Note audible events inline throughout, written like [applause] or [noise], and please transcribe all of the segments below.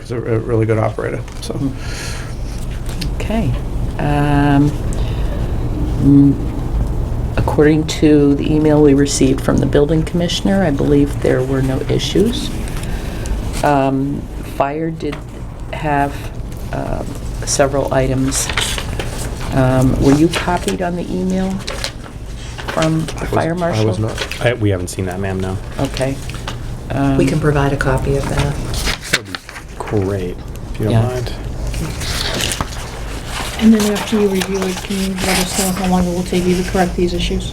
is a a really good operator, so. Okay. Um, mm, According to the email we received from the building commissioner, I believe there were no issues. Um, Fire did have um, several items. Um, Were you copied on the email from the fire marshal? I was not. I- We haven't seen that, ma'am, no. Okay. We can provide a copy of that. Great, if you don't Yeah. mind. And then after you review it, can you let us know how long it will take you to correct these issues?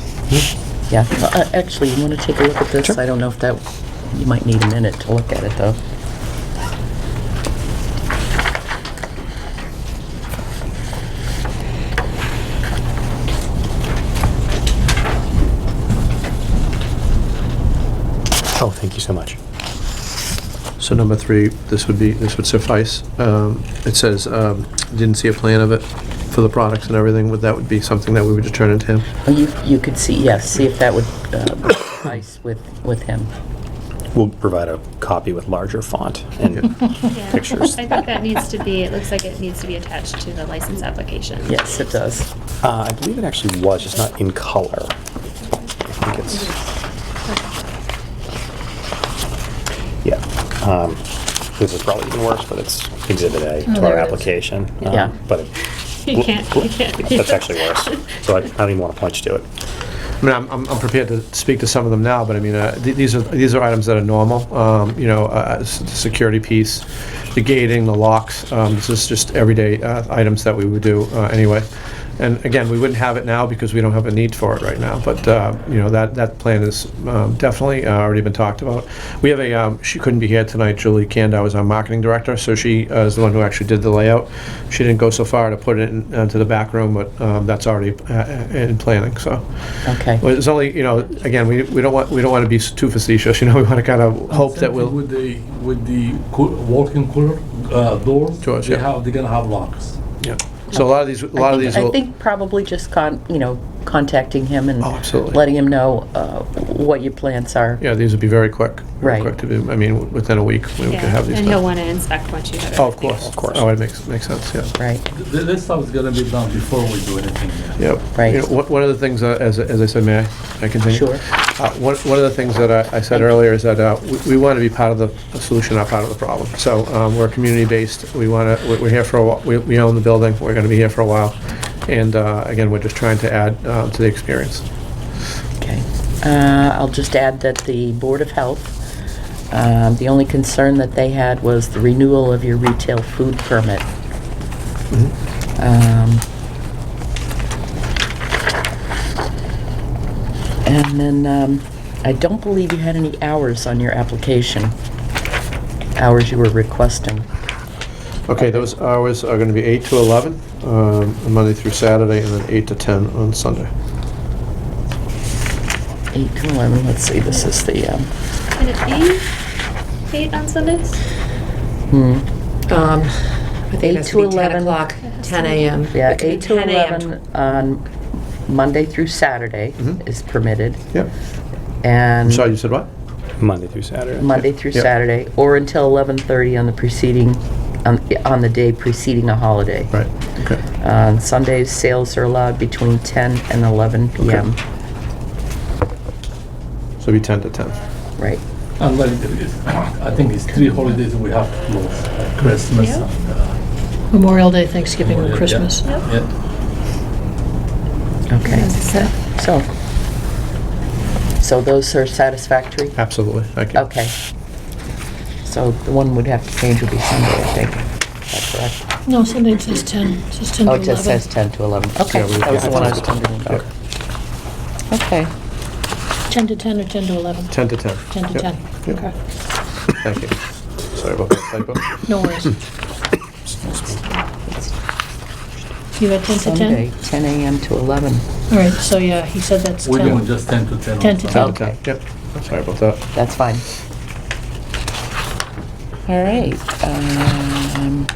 Yeah, well, uh, actually, you want to take a look at this? I don't know if that, you might need a minute to look at it, though. Oh, thank you so much. So number three, this would be, this would suffice. Um, It says, um, didn't see a plan of it for the products and everything, would, that would be something that we would just turn into him? Well, You, you could see, yes, see if that would uh, [coughs] suffice with, with him. We'll provide a copy with larger font and Yeah. pictures. I think that needs to be, it looks like it needs to be attached to the license application. Yes, it does. [laughs] Uh, I believe it actually was, just not in color. I think it's. Yeah, um, this is probably even worse, but it's Exhibit A to Oh, there our it is. application. um, Yeah. But it- You can't, you can't. that's actually worse, so I I don't even want to point you to it. I mean, I'm- I'm, I'm prepared to speak to some of them now, but I mean, uh, th- these are, these are items that are normal, um, you know, uh, s- the security piece, the gating, the locks, um, this is just everyday uh, items that we would do uh, anyway. And again, we wouldn't have it now because we don't have a need for it right now, but, uh, you know, that, that plan is um, definitely uh, already been talked about. We have a, um, she couldn't be here tonight, Julie Kandow is our marketing director, so she uh, is the one who actually did the layout. She didn't go so far to put it in- into the back room, but um, that's already uh, uh, in planning, so. Okay. Well, it's only, you know, again, we, we don't want, we don't want to be too facetious, [laughs] you know, we want to kind of hope that Something we'll, With the, with the coo- walk-in cooler, uh, doors, Doors, they yeah. have, they're gonna have locks. yeah. So a lot of these, a lot of I these think- I will, think probably just con, you know, contacting him and Oh, absolutely. letting him know uh, what your plans are. yeah, these would be very quick. very Right. Quick to do, I mean, within a week, we could Yeah, have these And he'll done. want to inspect once you have it. Oh, of course. Of course. Oh, it makes, makes sense, yeah. Right, Th- This stuff is gonna be done before we do anything there. Yep. Right. You know, one- One of the things, uh, as as I said, may I I continue? Sure. Uh, One one of the things that I- I said earlier is that uh, we- we want to be part of the solution, not part of the problem. So um, we're community-based, we want to, we're here for, a wh- we- we own the building, we're going to be here for a while, and uh, again, we're just trying to add uh, to the experience. okay. Uh, I'll just add that the Board of Health, um, the only concern that they had was the renewal of your retail food permit. Um, And then, um, I don't believe you had any hours on your application, hours you were requesting. Okay, those hours are going to be 8 to 11, um, Monday through Saturday, and then 8 to 10 on Sunday. 8 to 11, let's see, this is the, um, Can it be E, eight on Sundays? hmm, Um, I think it has to Eight be to 10 11. o'clock, 10 a.m. yeah, It could be 8 to 10 a.m. 11 on Monday through Saturday Mhm. is permitted, Yep. I'm and sorry, you said what? Monday through Saturday. Monday through Yep. Saturday, or until 11:30 on the preceding, on on the day preceding a holiday. Right, okay. On Sundays, sales are allowed between 10 and 11 p.m. So it'll be 10 to 10. Right, And like, it is- I think it's three holidays we have to close, like Christmas Yeah. and. uh, Memorial Day, Thanksgiving, and yeah, Christmas. Yeah. yeah. okay, so, so those are satisfactory? Absolutely, thank you. Okay. So the one would have to change would be Sunday, I think. Is that correct? No, Sunday it says 10, it says 10 to 11. Oh, it just says 10 to 11. Okay, Yeah, we- that was yeah, the one I was that's- wondering about. Okay, 10 to 10 or 10 to 11? 10 to 10. 10 to Yep. 10, Yep. okay. Thank you. Sorry about that typo. [coughs] No worries. You had 10 to Sunday, 10? 10 a.m. to 11. All right, so yeah, he said that's We're 10. doing just ten to ten. on 10 to Sunday. 10. Ten to 10, yep. Sorry about that. That's fine. All right. um,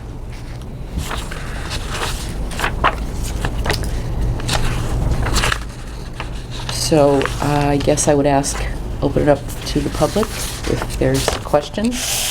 So I guess I would ask, open it up to the public if there's questions.